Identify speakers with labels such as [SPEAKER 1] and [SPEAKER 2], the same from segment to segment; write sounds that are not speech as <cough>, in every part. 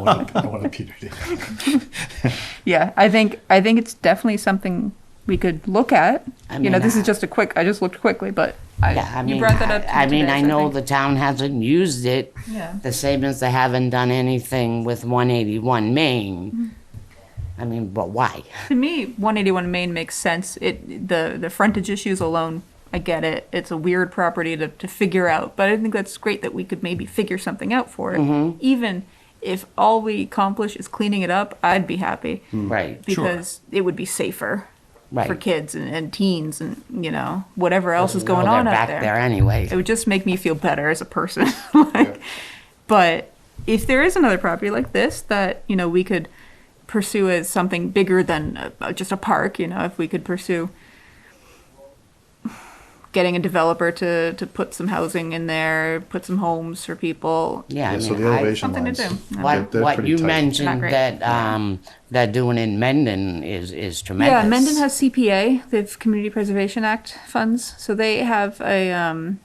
[SPEAKER 1] want a, I want a Peter Day.
[SPEAKER 2] Yeah, I think I think it's definitely something we could look at.
[SPEAKER 3] I
[SPEAKER 2] you know,
[SPEAKER 3] mean,
[SPEAKER 2] this
[SPEAKER 3] I-
[SPEAKER 2] is just a quick. I just looked quickly, but I,
[SPEAKER 3] Yeah, I
[SPEAKER 2] you
[SPEAKER 3] mean,
[SPEAKER 2] brought that
[SPEAKER 3] I
[SPEAKER 2] up.
[SPEAKER 3] I mean, I know
[SPEAKER 2] that.
[SPEAKER 3] the town hasn't used it,
[SPEAKER 2] Yeah.
[SPEAKER 3] the same as they haven't done anything with 181 Main.
[SPEAKER 2] Mm-hmm.
[SPEAKER 3] I mean, but why?
[SPEAKER 2] To me, 181 Main makes sense. It the the frontage issues alone, I get it. It's a weird property to, to figure out, but I think that's great that we could maybe figure something out for it.
[SPEAKER 3] Mm-hmm.
[SPEAKER 2] Even if all we accomplish is cleaning it up, I'd be happy
[SPEAKER 3] Mm-hmm. Right,
[SPEAKER 2] because it would be safer for
[SPEAKER 3] right.
[SPEAKER 2] kids and, and teens and you know whatever else is going
[SPEAKER 3] Well,
[SPEAKER 2] on
[SPEAKER 3] they're
[SPEAKER 2] out
[SPEAKER 3] back
[SPEAKER 2] there.
[SPEAKER 3] there anyway.
[SPEAKER 2] It would just make me feel better as a person. <laughs> like, But if there is another property like this that you know we could pursue as something bigger than uh, uh, just a park, you know, if we could pursue getting a developer to to put some housing in there, put some homes for people.
[SPEAKER 3] Yeah, I
[SPEAKER 1] Yeah, so
[SPEAKER 3] mean,
[SPEAKER 1] the
[SPEAKER 3] I-
[SPEAKER 1] elevation
[SPEAKER 2] Something to
[SPEAKER 1] lines.
[SPEAKER 2] do.
[SPEAKER 1] they're-
[SPEAKER 3] What,
[SPEAKER 1] they're
[SPEAKER 3] what
[SPEAKER 1] pretty
[SPEAKER 3] you
[SPEAKER 1] tight.
[SPEAKER 3] mentioned
[SPEAKER 2] Not great.
[SPEAKER 3] that, um, that doing in Mendon is, is tremendous.
[SPEAKER 2] Yeah, Mendon has CPA. They have Community Preservation Act funds, so they have a um,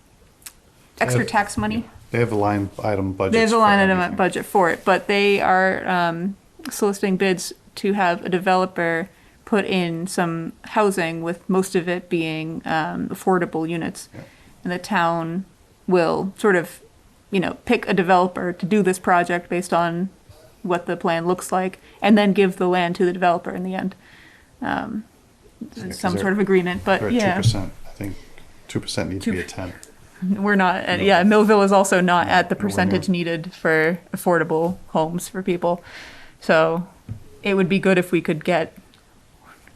[SPEAKER 2] extra
[SPEAKER 1] have-
[SPEAKER 2] tax money.
[SPEAKER 1] They have a line item budget.
[SPEAKER 2] There's a line item at budget for it, but they are um, soliciting bids to have a developer put in some housing, with most of it being um, affordable units. And the town will sort of, you know, pick a developer to do this project based on what the plan looks like, and then give the land to the developer in the end. Um, some
[SPEAKER 1] they're-
[SPEAKER 2] sort of agreement,
[SPEAKER 1] They're
[SPEAKER 2] but
[SPEAKER 1] at two
[SPEAKER 2] yeah,
[SPEAKER 1] percent. I think two percent needs to be
[SPEAKER 2] Two-
[SPEAKER 1] a ten.
[SPEAKER 2] we're not. At, Yeah, Millville is also not at the
[SPEAKER 1] Nowhere near.
[SPEAKER 2] percentage needed for affordable homes for people. So it would be good if we could get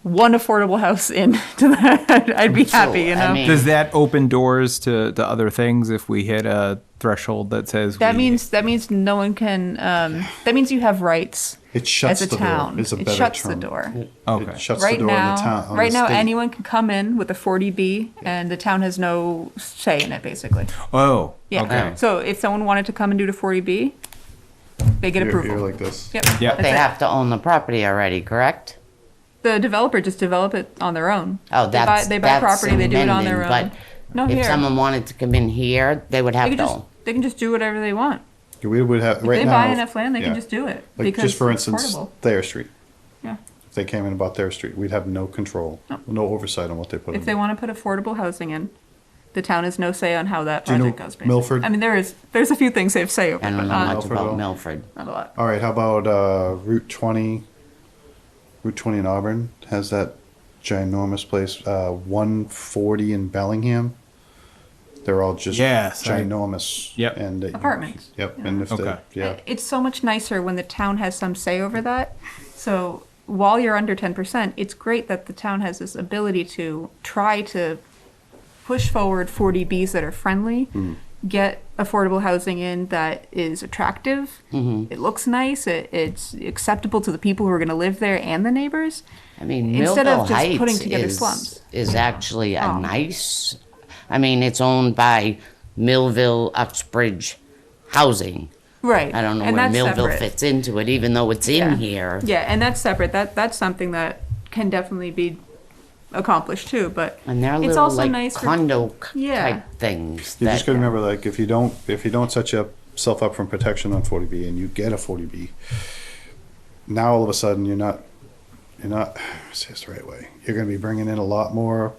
[SPEAKER 2] one affordable house in <laughs> to that. I'd be happy, you
[SPEAKER 3] I
[SPEAKER 2] know.
[SPEAKER 3] mean-
[SPEAKER 4] Does that open doors to, to other things if we hit a threshold that says
[SPEAKER 2] that
[SPEAKER 4] we-
[SPEAKER 2] means that means no one can. Um, that means you have rights
[SPEAKER 1] It shuts
[SPEAKER 2] as a
[SPEAKER 1] the
[SPEAKER 2] town.
[SPEAKER 1] door. Is a
[SPEAKER 2] it
[SPEAKER 1] better
[SPEAKER 2] shuts
[SPEAKER 1] term.
[SPEAKER 2] the door.
[SPEAKER 4] okay
[SPEAKER 1] It shuts
[SPEAKER 2] right
[SPEAKER 1] the door
[SPEAKER 2] now,
[SPEAKER 1] on the town. on
[SPEAKER 2] right
[SPEAKER 1] the
[SPEAKER 2] now,
[SPEAKER 1] state.
[SPEAKER 2] anyone can come in with a 40B, and the town has no say in it, basically.
[SPEAKER 4] oh
[SPEAKER 2] Yeah.
[SPEAKER 4] okay
[SPEAKER 2] So if someone wanted to come and do the 40B, they get
[SPEAKER 1] You're-
[SPEAKER 2] approval.
[SPEAKER 1] You're like this.
[SPEAKER 2] Yep.
[SPEAKER 4] Yeah.
[SPEAKER 3] They
[SPEAKER 2] That's it.
[SPEAKER 3] have to own the property already, correct?
[SPEAKER 2] The developer just develop it on their own.
[SPEAKER 3] Oh,
[SPEAKER 2] They buy-
[SPEAKER 3] that's,
[SPEAKER 2] They buy
[SPEAKER 3] that's
[SPEAKER 2] property, they
[SPEAKER 3] in
[SPEAKER 2] do it on
[SPEAKER 3] Mendon,
[SPEAKER 2] their own.
[SPEAKER 3] but
[SPEAKER 2] No, here.
[SPEAKER 3] if someone wanted to come in here, they would
[SPEAKER 2] They
[SPEAKER 3] have
[SPEAKER 2] can
[SPEAKER 3] to
[SPEAKER 2] just,
[SPEAKER 3] own.
[SPEAKER 2] they can just do whatever they want.
[SPEAKER 1] We would have right
[SPEAKER 2] They
[SPEAKER 1] now.
[SPEAKER 2] buy enough land, they
[SPEAKER 1] yeah.
[SPEAKER 2] can just do it.
[SPEAKER 1] Like
[SPEAKER 2] because
[SPEAKER 1] just for
[SPEAKER 2] it's
[SPEAKER 1] instance,
[SPEAKER 2] affordable.
[SPEAKER 1] Thayer Street.
[SPEAKER 2] Yeah.
[SPEAKER 1] If they came in and bought Thayer Street, we'd have no control, no oversight on what they put in.
[SPEAKER 2] If they
[SPEAKER 1] there.
[SPEAKER 2] want to put affordable housing in, the town has no say on how that
[SPEAKER 1] Do you know
[SPEAKER 2] project goes. basically.
[SPEAKER 1] Milford?
[SPEAKER 2] I mean, there is, there's a few things they have say over,
[SPEAKER 3] I
[SPEAKER 2] but
[SPEAKER 3] don't know
[SPEAKER 2] not,
[SPEAKER 3] much
[SPEAKER 1] Milford
[SPEAKER 3] about
[SPEAKER 1] own.
[SPEAKER 3] Milford.
[SPEAKER 2] not a lot.
[SPEAKER 1] All right, how about uh, Route 20? Route 20 in Auburn has that ginormous place. Uh, 140 in Bellingham. They're all just
[SPEAKER 4] Yes, I-
[SPEAKER 1] ginormous.
[SPEAKER 4] Yep.
[SPEAKER 1] And that you-
[SPEAKER 2] Apartments.
[SPEAKER 1] Yep. And if
[SPEAKER 4] Okay.
[SPEAKER 1] they, yeah,
[SPEAKER 2] It's so much nicer when the town has some say over that. So while you're under ten percent, it's great that the town has this ability to try to push forward forty Bs that are friendly,
[SPEAKER 3] Mm-hmm.
[SPEAKER 2] get affordable housing in that is attractive.
[SPEAKER 3] Mm-hmm.
[SPEAKER 2] It looks nice. It, it's acceptable to the people who are going to live there and the neighbors.
[SPEAKER 3] I mean,
[SPEAKER 2] Instead
[SPEAKER 3] Millville
[SPEAKER 2] of just
[SPEAKER 3] Heights
[SPEAKER 2] putting together
[SPEAKER 3] is,
[SPEAKER 2] slums.
[SPEAKER 3] is
[SPEAKER 1] Mm-hmm.
[SPEAKER 3] actually
[SPEAKER 2] Oh.
[SPEAKER 3] a nice, I mean, it's owned by Millville Uxbridge Housing.
[SPEAKER 2] Right.
[SPEAKER 3] I don't know
[SPEAKER 2] and
[SPEAKER 3] where
[SPEAKER 2] that's
[SPEAKER 3] Millville
[SPEAKER 2] separate.
[SPEAKER 3] fits into it, even though it's
[SPEAKER 2] Yeah.
[SPEAKER 3] in here.
[SPEAKER 2] Yeah, and that's separate. That that's something that can definitely be accomplished too. But
[SPEAKER 3] And they're
[SPEAKER 2] it's
[SPEAKER 3] little
[SPEAKER 2] also
[SPEAKER 3] like
[SPEAKER 2] nice for-
[SPEAKER 3] condo c-
[SPEAKER 2] Yeah.
[SPEAKER 3] type
[SPEAKER 1] you
[SPEAKER 3] things.
[SPEAKER 1] just
[SPEAKER 3] that- uh,
[SPEAKER 1] gotta remember, like, if you don't, if you don't set yourself up from protection on 40B, and you get a 40B, now all of a sudden you're not, you're not. Say this the right way. You're gonna be bringing in a lot more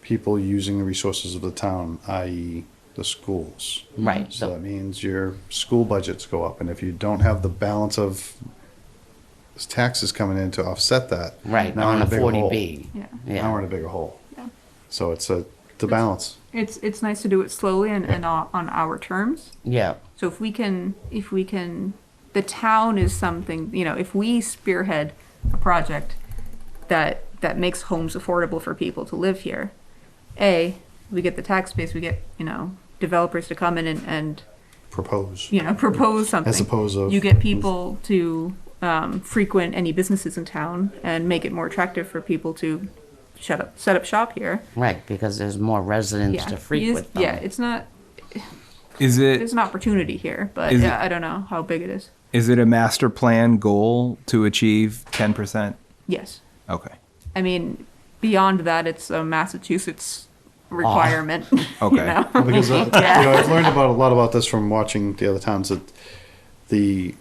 [SPEAKER 1] people using the resources of the town, i.e., the schools.
[SPEAKER 3] Right,
[SPEAKER 1] So
[SPEAKER 3] the-
[SPEAKER 1] that means your school budgets go up, and if you don't have the balance of taxes coming in to offset that,
[SPEAKER 3] Right,
[SPEAKER 1] now we're
[SPEAKER 3] on
[SPEAKER 1] in
[SPEAKER 3] a
[SPEAKER 1] bigger hole.
[SPEAKER 3] forty B.
[SPEAKER 2] Yeah.
[SPEAKER 1] Now we're in a bigger hole. So it's a the balance.
[SPEAKER 2] It's it's nice to do it slowly and, and on on our terms.
[SPEAKER 3] Yeah,
[SPEAKER 2] So if we can if we can the town is something, you know, if we spearhead a project that that makes homes affordable for people to live here, A, we get the tax base, we get, you know, developers to come in and, and
[SPEAKER 1] Propose.
[SPEAKER 2] you know, <laughs> propose something.
[SPEAKER 1] opposed of-
[SPEAKER 2] you get people to um, frequent any businesses in town and make it more attractive for people to shut up set up shop here.
[SPEAKER 3] right, because there's more residents to
[SPEAKER 2] You just-
[SPEAKER 3] frequent
[SPEAKER 2] yeah,
[SPEAKER 3] them.
[SPEAKER 2] it's not
[SPEAKER 4] is
[SPEAKER 2] there's
[SPEAKER 4] it
[SPEAKER 2] an opportunity here, but
[SPEAKER 4] Is it-
[SPEAKER 2] yeah, I don't know how big it is.
[SPEAKER 4] is it a master plan goal to achieve 10%
[SPEAKER 2] Yes.
[SPEAKER 4] okay
[SPEAKER 2] I mean, beyond that, it's a Massachusetts requirement. <laughs> you
[SPEAKER 4] Ah. Okay.
[SPEAKER 2] know?
[SPEAKER 1] because uh, you know, I've learned about a lot about this from watching the other towns that the